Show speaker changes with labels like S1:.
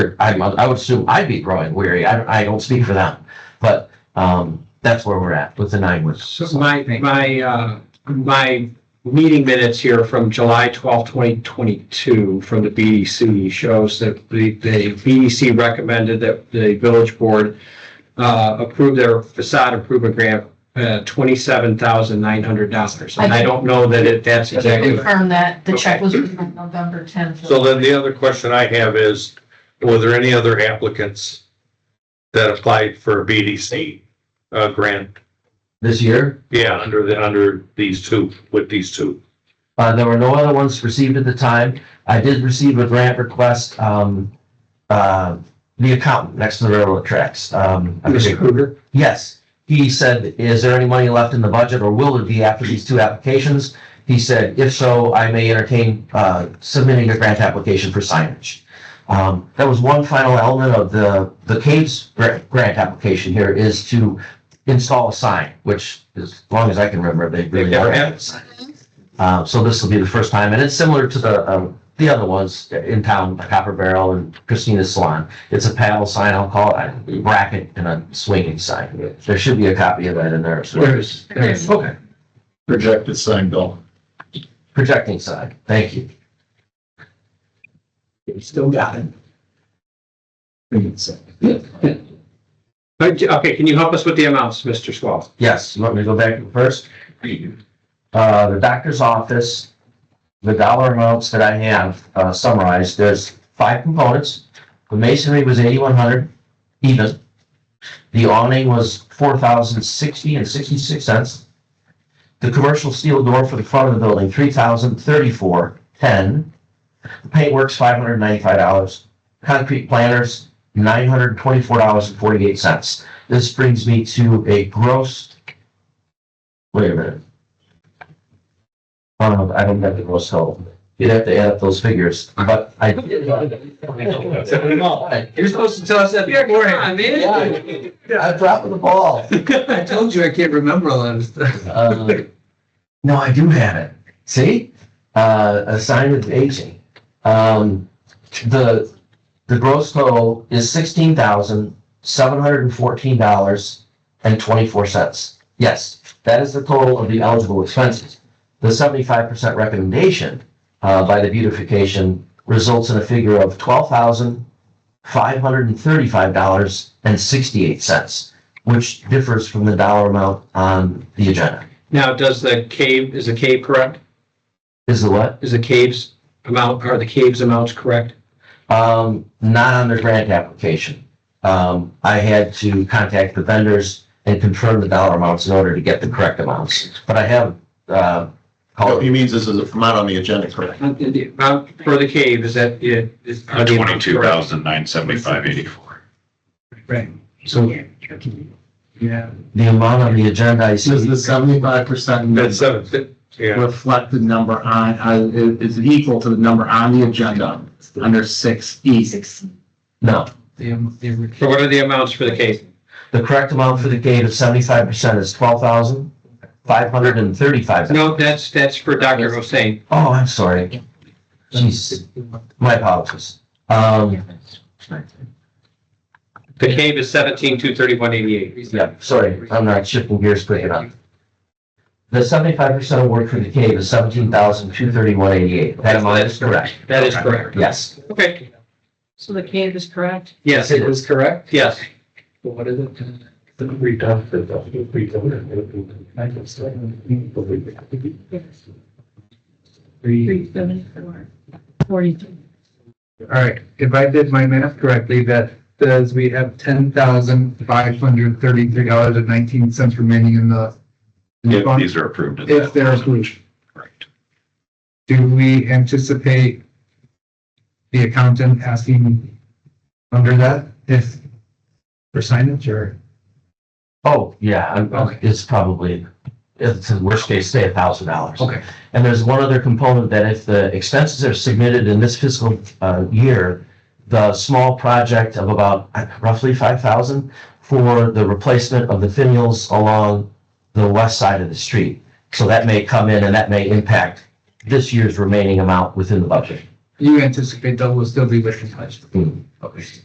S1: I, mu- I would assume I'd be growing weary. I, I don't speak for them, but, um, that's where we're at with the nine woods.
S2: So my, my, uh, my meeting minutes here from July twelfth, twenty twenty-two, from the BDC shows that the, the BDC recommended that the village board uh, approve their facade improvement grant, uh, twenty-seven thousand nine hundred dollars. And I don't know that it, that's
S3: Just to
S2: exactly.
S3: confirm that the check was written on November tenth.
S4: So then the other question I have is, were there any other applicants that applied for a BDC uh, grant?
S1: This year,
S4: Yeah, under the, under these two, with these two.
S1: uh, there were no other ones received at the time. I did receive a grant request, um, uh, the accountant next to the railroad tracks. Um, I forget-
S2: Mr. Kruger?
S1: Yes. He said, is there any money left in the budget or will it be after these two applications? He said, if so, I may entertain, uh, submitting a grant application for signage. Um, that was one final element of the, the caves gra- grant application here is to install a sign, which as long as I can remember, they really
S4: They've never
S1: never
S4: had
S1: had a sign. Uh, so this will be the first time and it's similar to the, um, the other ones in town, like Copper Barrel and Christina's Salon. It's a panel sign, I'll call it, a bracket and a swinging sign. There should be a copy of that in there. so-
S2: is? There is, okay.
S5: projected sign bill.
S1: Projecting sign, thank you.
S2: Still got it.
S5: I think it's-
S2: Okay, can you help us with the amounts, Mr. Swall?
S1: Yes, you want me to go back first? Uh, the doctor's office, the dollar amounts that I have uh, summarized, there's five components. The masonry was eighty-one hundred even. The awning was four thousand sixty and sixty-six cents. The commercial steel door for the front of the building, three thousand thirty-four ten. The Paintworks, five hundred ninety-five dollars. Concrete planters, nine hundred twenty-four dollars and forty-eight cents. This brings me to a gross. Wait a minute. Um, I don't have the gross total. You'd have to add up those figures, but I.
S2: You're supposed to tell us that beforehand.
S1: I'm dropping the ball.
S2: I told you I can't remember a lot of stuff.
S1: Uh, No, I do have it. See? Uh, a sign of aging. Um, the, the gross total is sixteen thousand, seven hundred and fourteen dollars and twenty-four cents. Yes, that is the total of the eligible expenses. The seventy-five percent recommendation, uh, by the beautification results in a figure of twelve thousand, five hundred and thirty-five dollars and sixty-eight cents which differs from the dollar amount on the agenda.
S2: Now, does the cave, is the cave correct?
S1: Is the what?
S2: Is the caves amount, are the caves amounts correct?
S1: Um, not on the grant application. Um, I had to contact the vendors and confirm the dollar amounts in order to get the correct amounts. But I have, uh,
S5: Oh,
S1: called,
S5: he means this is not on the agenda, correct?
S2: Uh, the Amount for the cave, is that? it- is- are the amounts
S6: Twenty-two
S2: correct?
S6: thousand nine seventy-five eighty-four.
S2: Right. So. Yeah.
S1: the amount on the agenda I
S5: Does
S1: see,
S5: the seventy-five percent
S4: That's seven, yeah.
S5: reflect the number on, uh, is is equal to the number on the agenda under six E?
S1: no.
S2: So what are the amounts for the cave?
S1: The correct amount for the gate of seventy-five percent is twelve thousand, five hundred and thirty-five.
S2: No, that's, that's for Dr. Hossein.
S1: Oh, I'm sorry. Jeez, my apologies. Um,
S2: The cave is seventeen, two thirty-one, eighty-eight.
S1: Yeah, sorry, I'm not shifting gears quick enough. The seventy-five percent award for the cave is seventeen thousand two thirty-one eighty-eight. That amount is correct.
S2: That is correct.
S1: Yes.
S2: Okay.
S3: So the cave is correct.
S2: Yes,
S1: it was correct.
S2: yes.
S7: What is it? The redone, the, the redone. I can still.
S3: Yes.
S7: All
S3: Three seventy-four, forty-three.
S7: right, if I did my math correctly, that says we have ten thousand five hundred thirty-three dollars and nineteen cents remaining in the. in the
S6: If
S7: fund,
S6: these are approved. at
S7: If
S6: that
S7: they're
S6: level.
S7: approved,
S6: Correct.
S7: do we anticipate the accountant asking under that if for signage or?
S1: Oh, yeah, I'm-
S7: Okay.
S1: it's probably, it's in worst case, say a thousand dollars.
S7: Okay.
S1: And there's one other component that if the expenses are submitted in this fiscal uh, year, the small project of about uh, roughly five thousand for the replacement of the finials along the west side of the street. So that may come in and that may impact this year's remaining amount within the budget.
S7: you anticipate that will still be within budget.
S1: Hmm.
S7: Okay.